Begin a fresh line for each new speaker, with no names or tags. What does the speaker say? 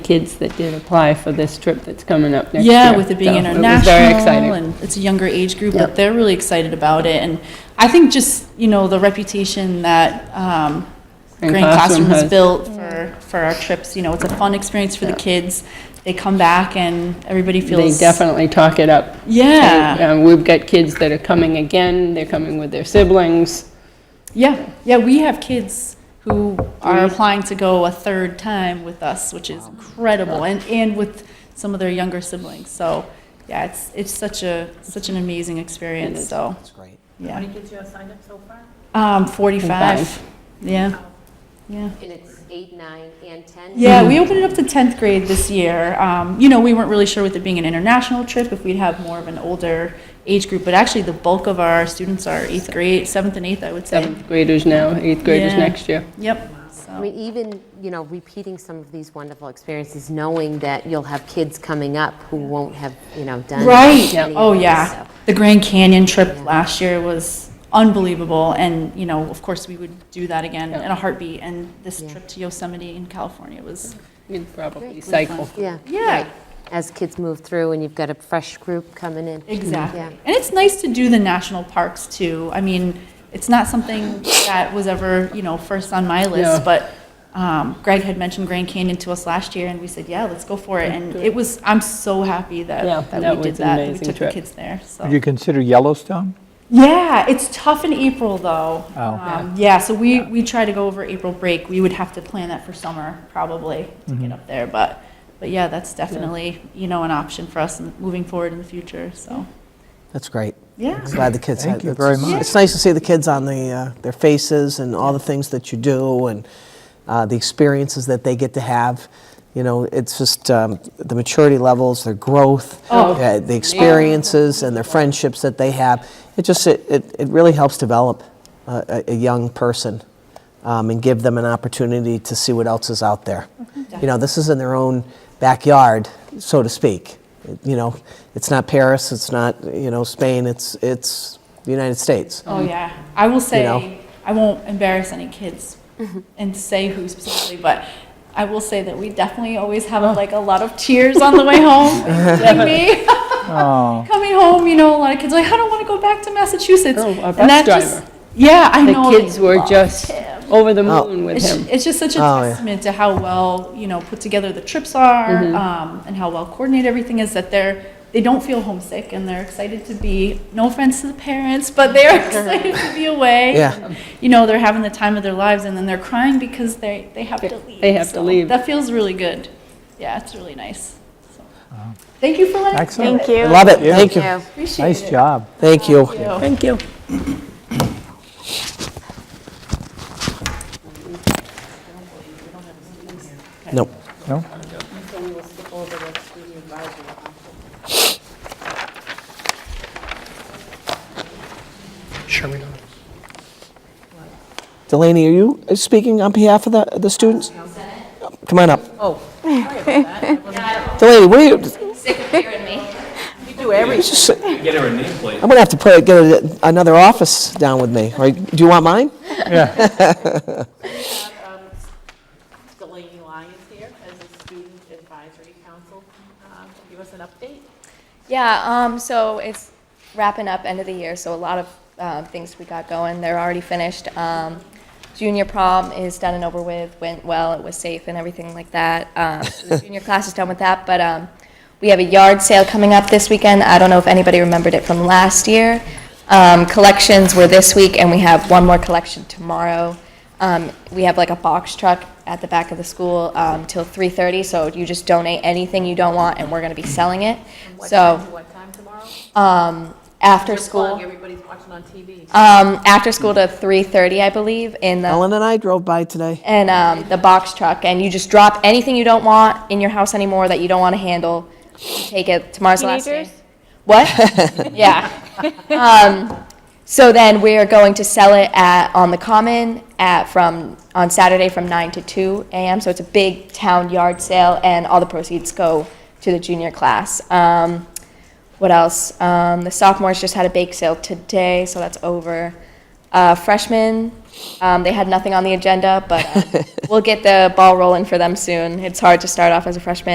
kids that did apply for this trip that's coming up next year.
Yeah, with it being
So
international.
It was very exciting.
And it's a younger age group,
Yeah.
but they're really excited about it. And I think just, you know, the reputation that um,
Grand
Grand
Classroom
Classroom has
has.
built for, for our trips, you know, it's a fun experience for the
Yeah.
kids. They come back and everybody
They
feels.
definitely talk it up.
Yeah,
And, um, We've got kids that are coming again, they're coming with their siblings.
yeah, yeah. We have kids who are applying to go a third time with us, which is incredible, and, and with some of their younger siblings. So, yeah, it's, it's such a, such an amazing experience, so,
That's great.
How
yeah.
many kids you have signed up so far? Oh.
Um, 45.
Five.
Yeah. Yeah.
And it's eight, nine, and 10?
Yeah, we opened it up to 10th grade this year. Um, you know, we weren't really sure with it being an international trip if we'd have more of an older age group, but actually the bulk of our students are 8th grade, 7th and 8th, I would say.
Seventh graders now, eighth graders
Yeah.
next year.
Yep.
I
So,
mean, even, you know, repeating some of these wonderful experiences, knowing that you'll have kids coming up who won't have, you know, done.
right.
any of
Oh,
this
yeah.
stuff.
The Grand Canyon trip last year was unbelievable, and, you know, of course we would do that again in a heartbeat. And this
Yeah.
trip to Yosemite in California was,
You'd probably cycle.
Yeah.
Yeah.
right. As kids move through and you've got a fresh group coming in.
Exactly.
Yeah.
And it's nice to do the national parks too. I mean, it's not something that was ever, you know, first on my
Yeah.
list, but um, Greg had mentioned Grand Canyon to us last year and we said, yeah, let's go for it. And it was, I'm so happy
Yeah,
that,
that
that we did
was an
that. that We
amazing
took
trip.
the kids there, so.
Would you consider Yellowstone?
Yeah, it's tough in April though.
Oh.
Um, yeah, so we, we try to go over April break. We would have to plan that for summer probably to
Mm-hmm.
get up there, but, but yeah, that's definitely, you know, an option for us in- moving forward in the future, so,
That's great.
yeah.
I'm glad the kids.
Thank
had-
you
it's-
very much.
It's nice to see the kids on the, uh, their faces and all the things that you do and uh, the experiences that they get to have. You know, it's just um, the maturity levels, their growth, uh, the experiences, and their friendships that they have. It just it, it, it really helps develop uh, a, a young person um, and give them an opportunity to see what else is out there. You know, this is in their own backyard, so to speak. You know, it's not Paris, it's not you know Spain, it's it's the United States.
Um,
Oh yeah, I will say
know?
I won't embarrass any kids and say who specifically, but I will say that we definitely always have
Oh.
like a lot of tears on the way home. like me
Oh,
coming home, you know, a lot of kids are like I don't want to go back to Massachusetts.
Oh, our
And
bus
that
driver.
yeah, I
The
know Oh,
kids
they
were
love
just
him.
over the
Oh.
moon with
It's,
him.
it's just such a
Oh, yeah.
testament to how well you know put together the trips are,
Mm-hmm.
um, and how well coordinated everything is. That they're they don't feel homesick and they're excited to be. No offense to the parents, but they're excited to be away.
Yeah.
And, you know they're having the time of their lives, and then they're crying because they they have to leave.
They have to
So
leave.
That feels really good. Yeah, it's really nice. So.
Uh-huh.
Thank you for letting
Excellent.
me do it.
I love it. Thank you.
Appreciate
nice
it.
job.
Thank you.
Thank you.
Thank you.
Nope.
No?
Delaney, are you speaking on behalf of the, the students? Come on up. Oh. Delaney, what are you? Sick of hearing me. You do everything.
Get her a nameplate.
I'm gonna have to put, get a- another office down with me, or do you want mine?
Yeah.
Um, Delaney Lyons here as a student advisory council. Uh, Give us an update.
Yeah, um, so it's wrapping up end of the year, so a lot of uh, things we got going. They're already finished. Um, junior prom is done and over with, went well, it was safe and everything like that. Um, so the junior class is done with that, but um, we have a yard sale coming up this weekend. I don't know if anybody remembered it from last year. Um, collections were this week, and we have one more collection tomorrow. Um, we have like a box truck at the back of the school um, till 3:30, so you just donate anything you don't want, and we're going to be selling it. so um,
What time tomorrow?
after
Just plug,
school,
Everybody's watching on TV.
um, after school to 3:30, I believe, in the
Ellen and I drove by today.
and um, the box truck, and you just drop anything you don't want in your house anymore that you don't want to handle. You take it tomorrow's the last day.
Teenagers?
What? yeah. Um, so then we are going to sell it at on the common at from on Saturday from 9 to 2 a.m. So it's a big town yard sale, and all the proceeds go to the junior class. Um, what else? Um, the sophomores just had a bake sale today, so that's over. Uh, freshmen, um, they had nothing on the agenda, but uh, we'll get the ball rolling for them soon. It's hard to start off as a freshman.